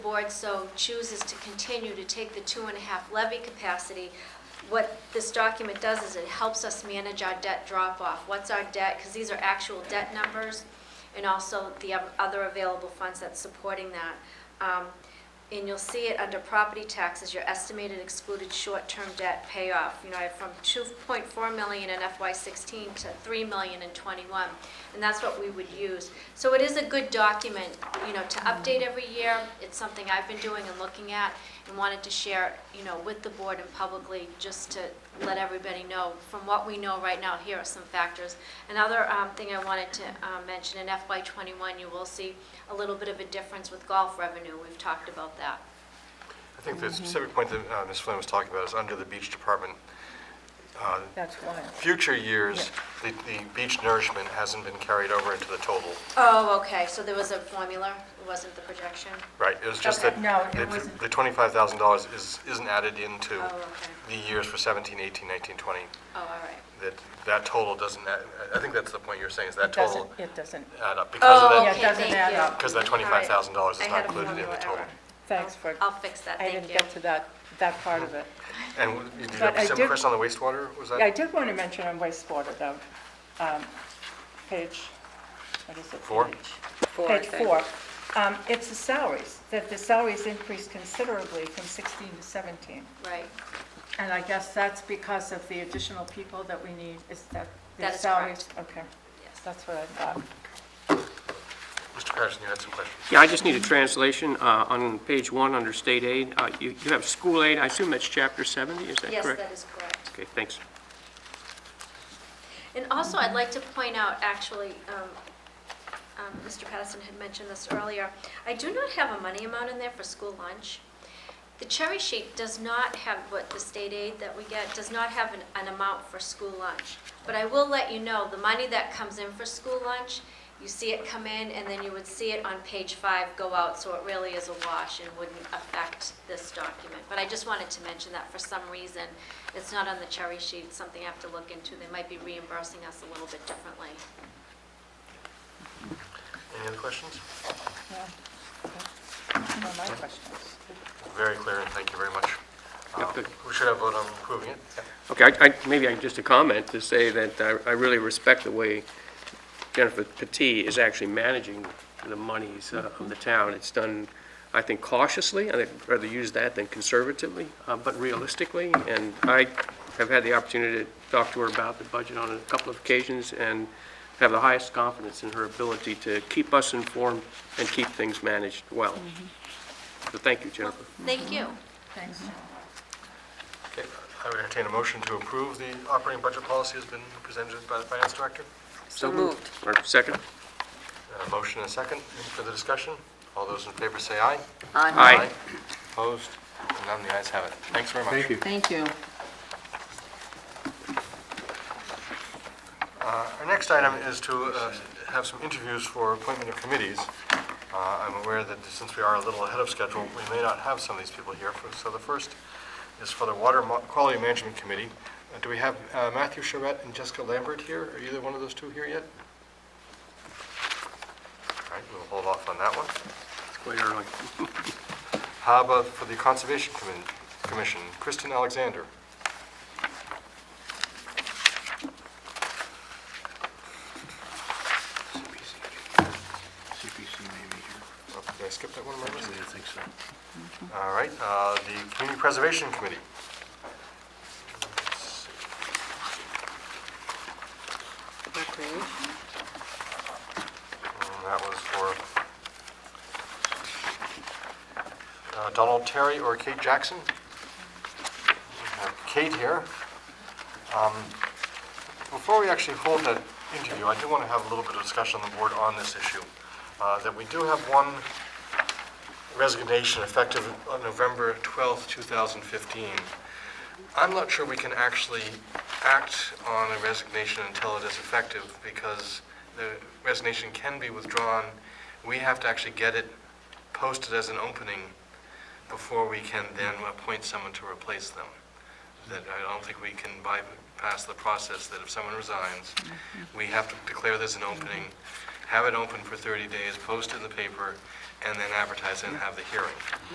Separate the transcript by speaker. Speaker 1: board so chooses to continue to take the two and a half levy capacity, what this document does is it helps us manage our debt drop-off. What's our debt, because these are actual debt numbers, and also the o- other available funds that's supporting that. Um, And you'll see it under property taxes, your estimated excluded short-term debt payoff, you know, I- from 2.4 million in FY '16 to 3 million in '21, and that's what we would use. So it is a good document, you know, to update every year. It's something I've been doing and looking at, and wanted to share, you know, with the board and publicly, just to let everybody know, from what we know right now, here are some factors. Another um, thing I wanted to uh, mention, in FY '21, you will see a little bit of a difference with golf revenue. We've talked about that.
Speaker 2: I think the specific point that uh, Ms. Flynn was talking about is under the beach department. uh,
Speaker 3: That's why.
Speaker 2: Future years, the the beach nourishment hasn't been carried over into the total,
Speaker 1: Oh, okay, so there was a formula, it wasn't the projection?
Speaker 2: right? It was just that
Speaker 3: Okay. No, it
Speaker 2: that
Speaker 3: wasn't.
Speaker 2: the $25,000 is- isn't added into
Speaker 1: Oh, okay.
Speaker 2: the years for 17, 18, 19, 20.
Speaker 1: Oh, all right.
Speaker 2: That, that total doesn't, add- I think that's the point you were saying, is that
Speaker 3: It doesn't,
Speaker 2: total
Speaker 3: it doesn't.
Speaker 2: add up because of
Speaker 1: Oh,
Speaker 2: that.
Speaker 3: Yeah, it doesn't
Speaker 1: thank
Speaker 3: add
Speaker 1: you.
Speaker 3: up.
Speaker 2: Because that
Speaker 1: All right.
Speaker 2: $25,000 is
Speaker 1: I
Speaker 2: not
Speaker 1: had a
Speaker 2: included in the
Speaker 1: formula
Speaker 2: total.
Speaker 1: error.
Speaker 3: Thanks for.
Speaker 1: I'll fix that,
Speaker 3: I
Speaker 1: thank
Speaker 3: didn't
Speaker 1: you.
Speaker 3: get to that, that part of it.
Speaker 2: And w- did you
Speaker 3: But I
Speaker 2: have some
Speaker 3: did-
Speaker 2: question on the wastewater? Was that?
Speaker 3: Yeah, I did want to mention on wastewater though, um, page, what is it?
Speaker 2: Four?
Speaker 3: Four. Page four. Um, It's the salaries, that the salaries increased considerably from 16 to 17.
Speaker 1: Right,
Speaker 3: And I guess that's because of the additional people that we need, is that the
Speaker 1: That is
Speaker 3: salaries? Okay,
Speaker 1: yes.
Speaker 3: that's what I thought.
Speaker 2: Mr. Patterson, you had some questions?
Speaker 4: Yeah, I just need a translation uh, on page one, under state aid. Uh, You you have school aid, I assume that's chapter 70, is that
Speaker 1: Yes,
Speaker 4: correct?
Speaker 1: that is correct.
Speaker 4: Okay, thanks.
Speaker 1: And also, I'd like to point out, actually, um, um, Mr. Patterson had mentioned this earlier, I do not have a money amount in there for school lunch. The cherry sheet does not have, what the state aid that we get, does not have an, an amount for school lunch. But I will let you know, the money that comes in for school lunch, you see it come in, and then you would see it on page five go out, so it really is a wash and wouldn't affect this document. But I just wanted to mention that for some reason, it's not on the cherry sheet, It's something I have to look into. They might be reimbursing us a little bit differently.
Speaker 2: Any other questions?
Speaker 3: Yeah. Okay. No, my questions.
Speaker 2: Very clear, and thank you very much.
Speaker 4: Yeah,
Speaker 2: Uh,
Speaker 4: good.
Speaker 2: We should have voted on approving it.
Speaker 4: Okay, I- I- maybe I, just a comment to say that I- I really respect the way Jennifer Petit is actually managing the monies uh, of the town. It's done, I think cautiously, and I'd rather use that than conservatively, uh, but realistically. And I have had the opportunity to talk to her about the budget on a couple of occasions and have the highest confidence in her ability to keep us informed and keep things managed well. So thank you,
Speaker 1: Well,
Speaker 4: Jennifer.
Speaker 1: thank you.
Speaker 3: Thanks.
Speaker 2: Okay, I would entertain a motion to approve the operating budget policy has been presented by the finance director.
Speaker 4: So moved. Or Second?
Speaker 2: Uh, Motion and a second. Any further discussion? All those in favor say aye.
Speaker 4: Aye.
Speaker 2: Opposed? And None, the ayes have it. Thanks very much.
Speaker 5: Thank you.
Speaker 6: Thank you.
Speaker 2: Our next item is to uh, have some interviews for appointment of committees. Uh, I'm aware that since we are a little ahead of schedule, we may not have some of these people here. For- So the first is for the Water Mo- Quality Management Committee. Uh, Do we have uh, Matthew Charette and Jessica Lambert here? Are either one of those two here yet? All right, we'll hold off on that one.
Speaker 4: It's quite early.
Speaker 2: How about for the Conservation Commi- Commission, Kristen Alexander?
Speaker 5: CPC. CPC may be here.
Speaker 2: Oh, Did I skip that one? am I missing?
Speaker 5: Actually, I think so.
Speaker 2: All right, uh, the Community Preservation Committee.
Speaker 6: Recreation?
Speaker 2: And that was for uh, Donald Terry or Kate Jackson. We have Kate here. Um, Before we actually hold that interview, I do want to have a little bit of discussion on the board on this issue, uh, that we do have one resignation effective on November 12th, 2015. I'm not sure we can actually act on a resignation until it is effective, because the resignation can be withdrawn. We have to actually get it posted as an opening before we can then appoint someone to replace them. That I don't think we can bypass the process that if someone resigns, we have to declare there's an opening, have it open for 30 days, post it in the paper, and then advertise it and have the hearing.